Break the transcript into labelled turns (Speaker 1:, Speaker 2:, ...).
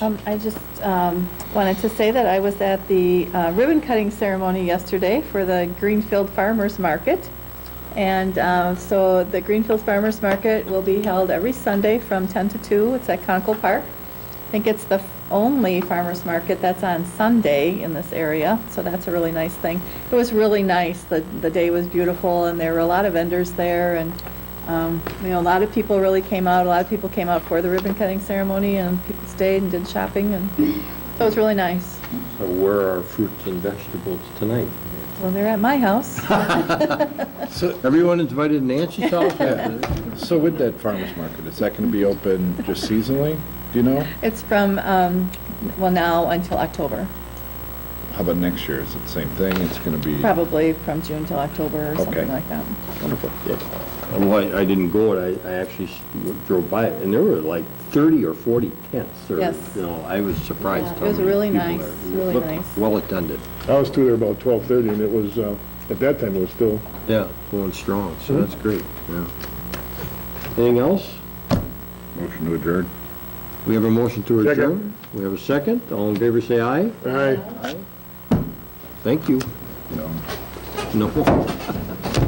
Speaker 1: Um, I just um, wanted to say that I was at the uh, ribbon cutting ceremony yesterday for the Greenfield Farmers Market. And uh, so the Greenfield Farmers Market will be held every Sunday from 10 to 2. It's at Conkle Park. I think it's the f- only farmers market that's on Sunday in this area, so that's a really nice thing. It was really nice. The, the day was beautiful, and there were a lot of vendors there, and, um, you know, a lot of people really came out. A lot of people came out for the ribbon cutting ceremony, and people stayed and did shopping, and so it was really nice.
Speaker 2: So where are fruits and vegetables tonight?
Speaker 1: Well, they're at my house.
Speaker 3: So,
Speaker 2: Everyone invited Nancy's house?
Speaker 3: so with that farmer's market, is that going to be open just seasonally? Do you know?
Speaker 1: It's from, um, well, now until October,
Speaker 3: How about next year? Is it the same thing? It's going to be?
Speaker 1: probably from June till October or something
Speaker 3: Okay.
Speaker 1: like that.
Speaker 3: Wonderful.
Speaker 2: And why, Um, I didn't go, and I, I actually s- drove by it, and there were like thirty or forty tents, or,
Speaker 1: Yes.
Speaker 2: you know, I was surprised.
Speaker 1: Yeah, it
Speaker 2: how
Speaker 1: was
Speaker 2: many
Speaker 1: really
Speaker 2: people
Speaker 1: nice,
Speaker 2: there. It
Speaker 1: really
Speaker 2: looked
Speaker 1: nice.
Speaker 2: Well attended,
Speaker 4: I was through there about twelve thirty, and it was, uh, at that time, it was still,
Speaker 2: yeah, Mm-hmm. going strong, so that's great, yeah. Anything else?
Speaker 3: Motion to adjourn.
Speaker 2: We have a motion to
Speaker 4: Second.
Speaker 2: adjourn? We have a second, all in favor say aye?
Speaker 4: aye.
Speaker 2: Thank you.
Speaker 3: No.
Speaker 2: No.